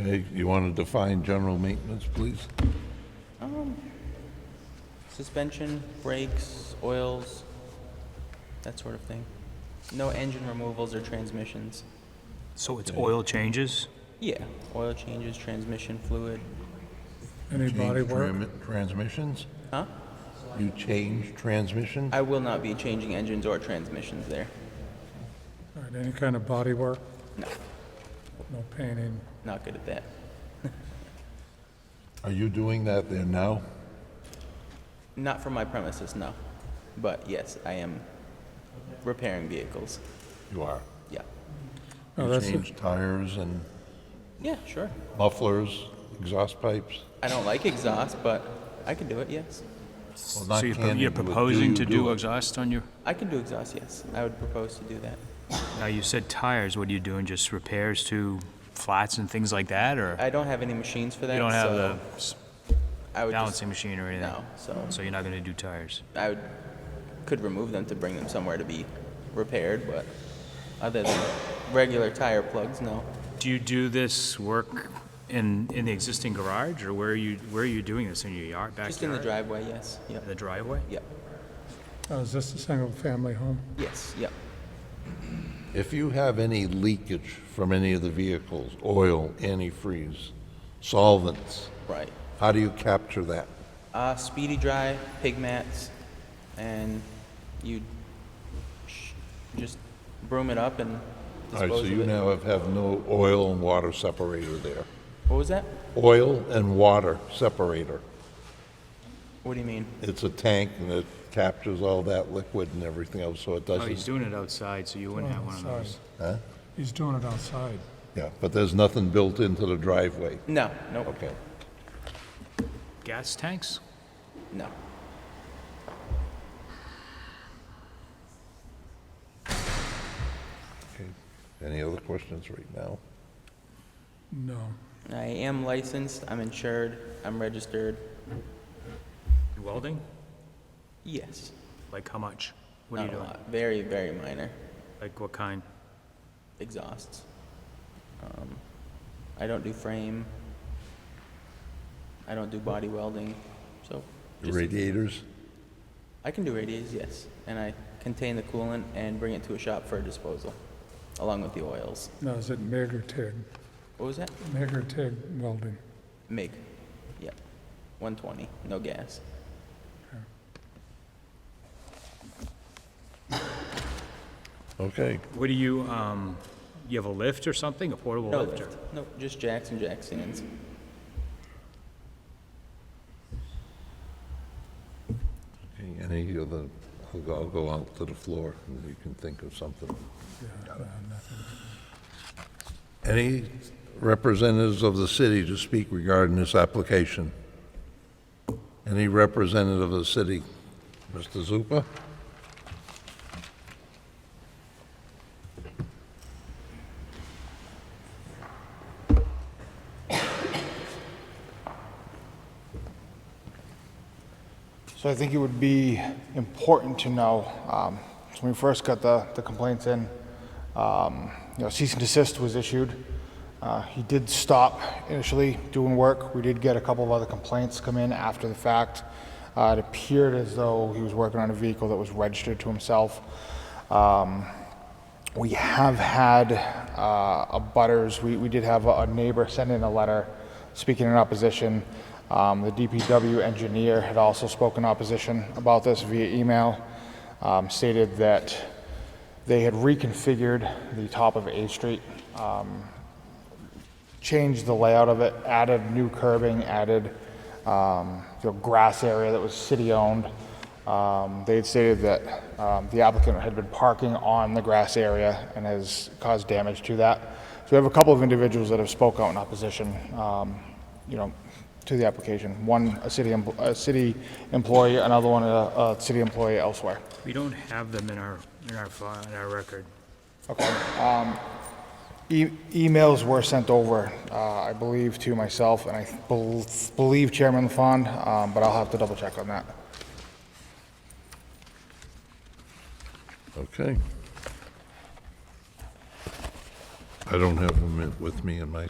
Okay, you want to define general maintenance, please? Suspension, brakes, oils, that sort of thing. No engine removals or transmissions. So it's oil changes? Yeah, oil changes, transmission fluid. Any body Change work? tram- Transmissions? Huh? You change transmission? I will not be changing engines or transmissions there. All right, any kind of body work? No, No painting? not good at that. Are you doing that there now? Not from my premises, no. But yes, I am repairing vehicles. You are. Yeah. Oh, You that's, change tires and Yeah, sure. mufflers, exhaust pipes? I don't like exhaust, but I can do it, yes. Well, So not you're pro- can you you're do it, do proposing you to do do it? exhaust on your, I can do exhaust, yes. I would propose to do that. now you said tires, what are you doing, just repairs to flats and things like that, or I don't have any machines for that. you don't have the so s- I would uh, just- balancing machine or anything? No, so So you're not gonna do tires? I would, could remove them to bring them somewhere to be repaired, but other than regular tire plugs, no. Do you do this work in, in the existing garage, or where are you, where are you doing this, in your yard, backyard? Just in the driveway, yes. Yep. The driveway? Yep. oh, is this a single-family home? Yes. Yep. If you have any leakage from any of the vehicles, oil, antifreeze, solvents, Right. how do you capture that? Uh, speedy dry pig mats, and you sh- just broom it up and All dispose right, so of you it. now have, have no oil and water separator there. What was that? Oil and water separator. What do you mean? It's a tank and it captures all that liquid and everything else, so it Oh, he's doesn't, doing it outside, so you wouldn't have one of Outside. those. huh? He's doing it outside. Yeah, but there's nothing built into the driveway. No. Nope. Okay. Gas tanks? No. Okay. Any other questions right now? No. I am licensed. I'm insured. I'm registered. You Welding? Yes. Like how much? What are Not you a doing? lot. Very, very minor. Like what kind? exhausts. Um, I don't do frame. I don't do body welding, so just, Radiators? I can do radiators, yes, and I contain the coolant and bring it to a shop for disposal, along with the oils. No, is it MIG or TIG? What was that? MIG or TIG welding? MIG. Yep. 120. No gas. Okay. What do you, um, you have a lift or something, a portable No lifter? lift. No, just jacks and jack stands. Okay, Any other, I'll go- I'll go out to the floor and you can think of something. Yeah, no, nothing. Any representatives of the city to speak regarding this application? Any representative of the city? Mr. Zupa? So I think it would be important to know, um, so when we first got the, the complaints in, um, you know, cease and desist was issued. Uh, he did stop initially doing work. We did get a couple of other complaints come in after the fact. Uh, it appeared as though he was working on a vehicle that was registered to himself. Um, we have had uh, a butters, we, we did have a a neighbor send in a letter speaking in opposition. Um, The DPW engineer had also spoken opposition about this via email, um, stated that they had reconfigured the top of A Street, um, changed the layout of it, added new curbing, added um, you know, grass area that was city-owned. Um, They had stated that um, the applicant had been parking on the grass area and has caused damage to that. So we have a couple of individuals that have spoke out in opposition, um, you know, to the application. One, a city, empl- a city employee, another one, a, a city employee elsewhere. We don't have them in our, in our, file- in our record. E- Emails were sent over, uh, I believe, to myself, and I bel- believe Chairman LaFond, um, but I'll have to double check on that. Okay. I don't have them with me in my